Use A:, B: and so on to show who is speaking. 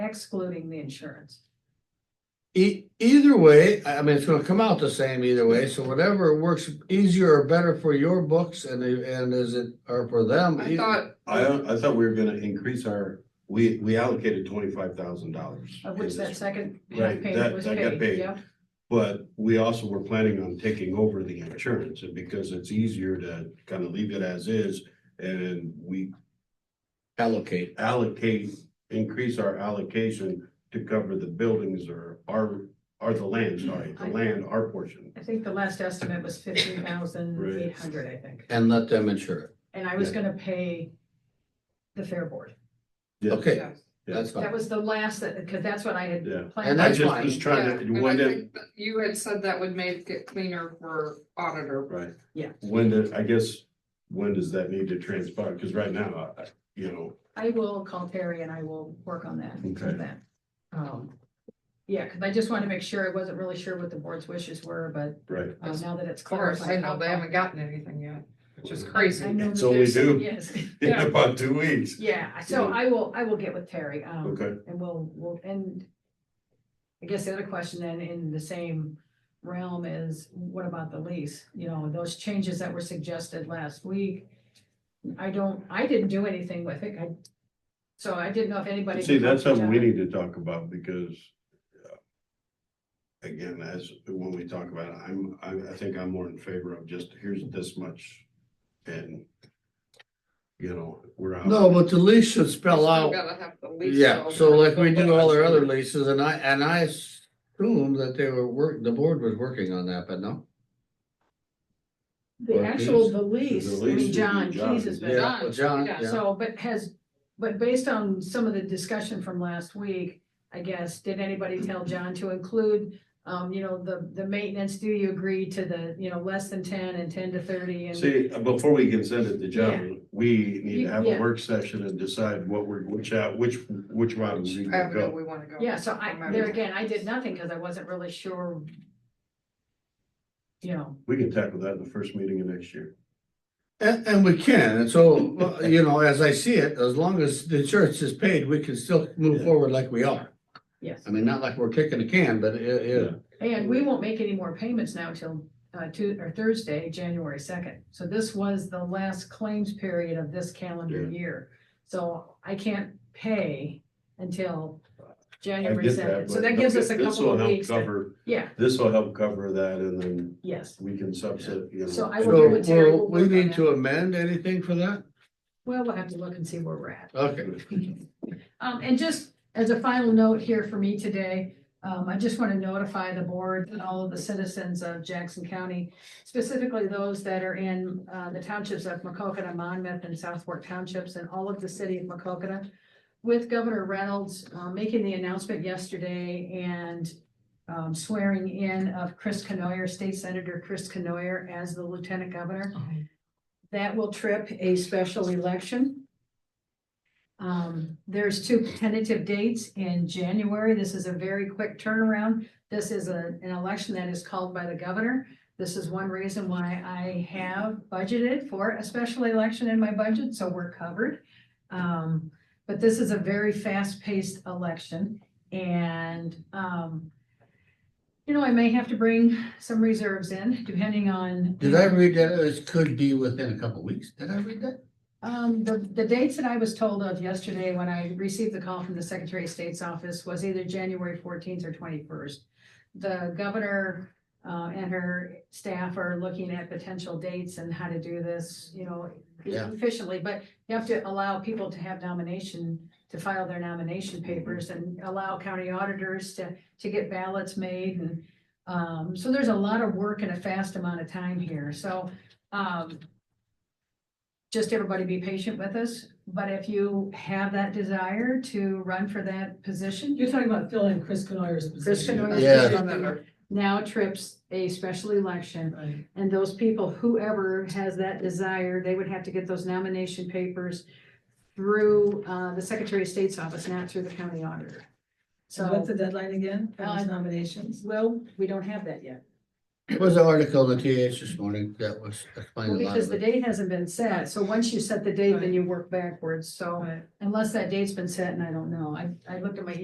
A: excluding the insurance.
B: E- either way, I I mean, it's gonna come out the same either way, so whatever works easier or better for your books and the, and is it, or for them. e,
C: I
B: either-
C: thought,
D: I, I thought we were gonna increase our, we, we allocated twenty-five thousand dollars.
A: Of which that second
D: Right,
A: half page
D: that-
A: was
D: that got
A: paid,
D: paid.
A: yeah.
D: But we also were planning on taking over the insurance, and because it's easier to kind of leave it as is, and we
B: Allocate.
D: allocate, increase our allocation to cover the buildings or our, or the land,
A: Mm-hmm.
D: sorry, the land, our portion.
A: I think the last estimate was fifteen thousand eight hundred, I think.
B: And let them insure it.
A: And I was gonna pay the fair board.
D: Yeah.
B: Okay,
C: yes,
B: that's
A: That
B: fine.
A: was the last, that because that's what I had
D: Yeah.
A: planned.
B: And
D: I
A: on
B: that's
D: just
B: fine.
D: was
C: yeah,
D: trying to,
C: and I
D: when did,
C: think that you had said that would make it cleaner for auditor.
D: right?
A: Yeah.
D: When did, I guess, when does that need to transpire? Because right now, I- you know,
A: I will call Terry and I will work on that.
D: Okay.
A: on that. Um, yeah, because I just wanted to make sure, I wasn't really sure what the board's wishes were, but
D: right,
A: uh, now that it's
C: Of course, I
A: clarified.
C: know
A: I'll
C: they
A: call-
C: haven't gotten anything yet, which is
A: I
C: crazy.
A: know
D: It's
A: that
D: only
A: there's-
D: due.
A: Yes,
D: in about two weeks.
A: yeah, so I will, I will get with Terry, um,
D: Okay,
A: and we'll, we'll, and I guess the other question then in the same realm is, what about the lease? You know, those changes that were suggested last week. I don't, I didn't do anything with it, I, so I didn't know if anybody.
D: see, that's something we
A: Yeah.
D: need to talk about because uh, again, as, when we talk about it, I'm, I, I think I'm more in favor of just, here's this much and you know, we're out.
B: No, but the lease should spell
C: Still
B: out,
C: gotta have the lease
B: yeah,
C: over.
B: so like we do all our other leases and I, and I assume that they were work, the board was working on that, but no?
A: The
B: Or
A: actual,
B: Keys?
A: the lease, I
D: lease
A: mean,
D: is
A: John
D: John.
A: Keys has been
B: Yeah,
A: done,
B: John,
C: yeah,
B: yeah.
A: so, but has, but based on some of the discussion from last week, I guess, did anybody tell John to include, um, you know, the, the maintenance, do you agree to the, you know, less than ten and ten to thirty and
D: See, before we can send it to John, we need
A: You-
D: to have
A: yeah.
D: a work session and decide what we're, which, out- which, which route we
C: I don't know,
D: go.
C: we wanna go.
A: yeah, so
C: no
A: I,
C: matter
A: there
C: what.
A: again, I did nothing because I wasn't really sure. You know,
D: We can tackle that in the first meeting of next year.
B: And, and we can, and so, uh, you know, as I see it, as long as the insurance is paid, we can still move
D: Yeah.
B: forward like we are.
A: yes,
B: I mean, not like we're kicking a can, but it, it,
A: and we won't make any more payments now till, uh, Tu- or Thursday, January second. So this was the last claims period of this calendar
D: Yeah.
A: year, so I can't pay until
D: I
A: January
D: get that,
A: second. So
D: but
A: that gives us a
D: this will
A: couple of
D: help
A: weeks, to-
D: Cover,
A: yeah,
D: this will help cover that and then
A: yes.
D: we can subset, you know.
A: So I will
B: so,
A: get with Terry,
B: will
A: we'll
B: we
A: work on
B: need
A: it.
B: to amend anything for that?
A: Well, we'll have to look and see where we're at.
B: Okay,
A: Um, and just as a final note here for me today, um, I just want to notify the board and all of the citizens of Jackson County, specifically those that are in, uh, the townships of Macokota, Monmouth, and South Fork Townships, and all of the city of Macokota. With Governor Reynolds, uh, making the announcement yesterday and, um, swearing in of Chris Canoyer, State Senator Chris Canoyer as the Lieutenant Governor. That will trip a special election. Um, there's two tentative dates in January. This is a very quick turnaround. This is a, an election that is called by the governor. This is one reason why I have budgeted for a special election in my budget, so we're covered. Um, but this is a very fast-paced election and, um, you know, I may have to bring some reserves in depending on.
B: did I read that as could be within a couple weeks? Did I read that?
A: Um, the, the dates that I was told of yesterday when I received the call from the Secretary of State's office was either January fourteenth or twenty-first. The governor, uh, and her staff are looking at potential dates and how to do this, you know,
B: Yeah.
A: efficiently, but you have to allow people to have nomination, to file their nomination
B: Mm-hmm.
A: papers and allow county auditors to, to get ballots made and, um, so there's a lot of work in a fast amount of time here, so, um, just everybody be patient with us, but if you have that desire to run for that position,
E: You're talking about filling Chris Canoyer's
A: Chris
E: position.
A: Canoyer's
B: Yeah.
A: position now trips a special election.
E: Right.
A: And those people, whoever has that desire, they would have to get those nomination papers through uh, the Secretary of State's office, not through the county auditor.
E: So what's
A: So,
E: the deadline again for
A: Uh,
E: those nominations?
A: well, we don't have that yet.
B: There was an article in the TH this morning that was
A: Well,
B: explaining a lot
A: Because
B: of
A: the
B: it.
A: date hasn't been set, so once you set the date, then you work backwards, so
E: Right.
A: unless that date's been set, and I don't know, I, I looked at my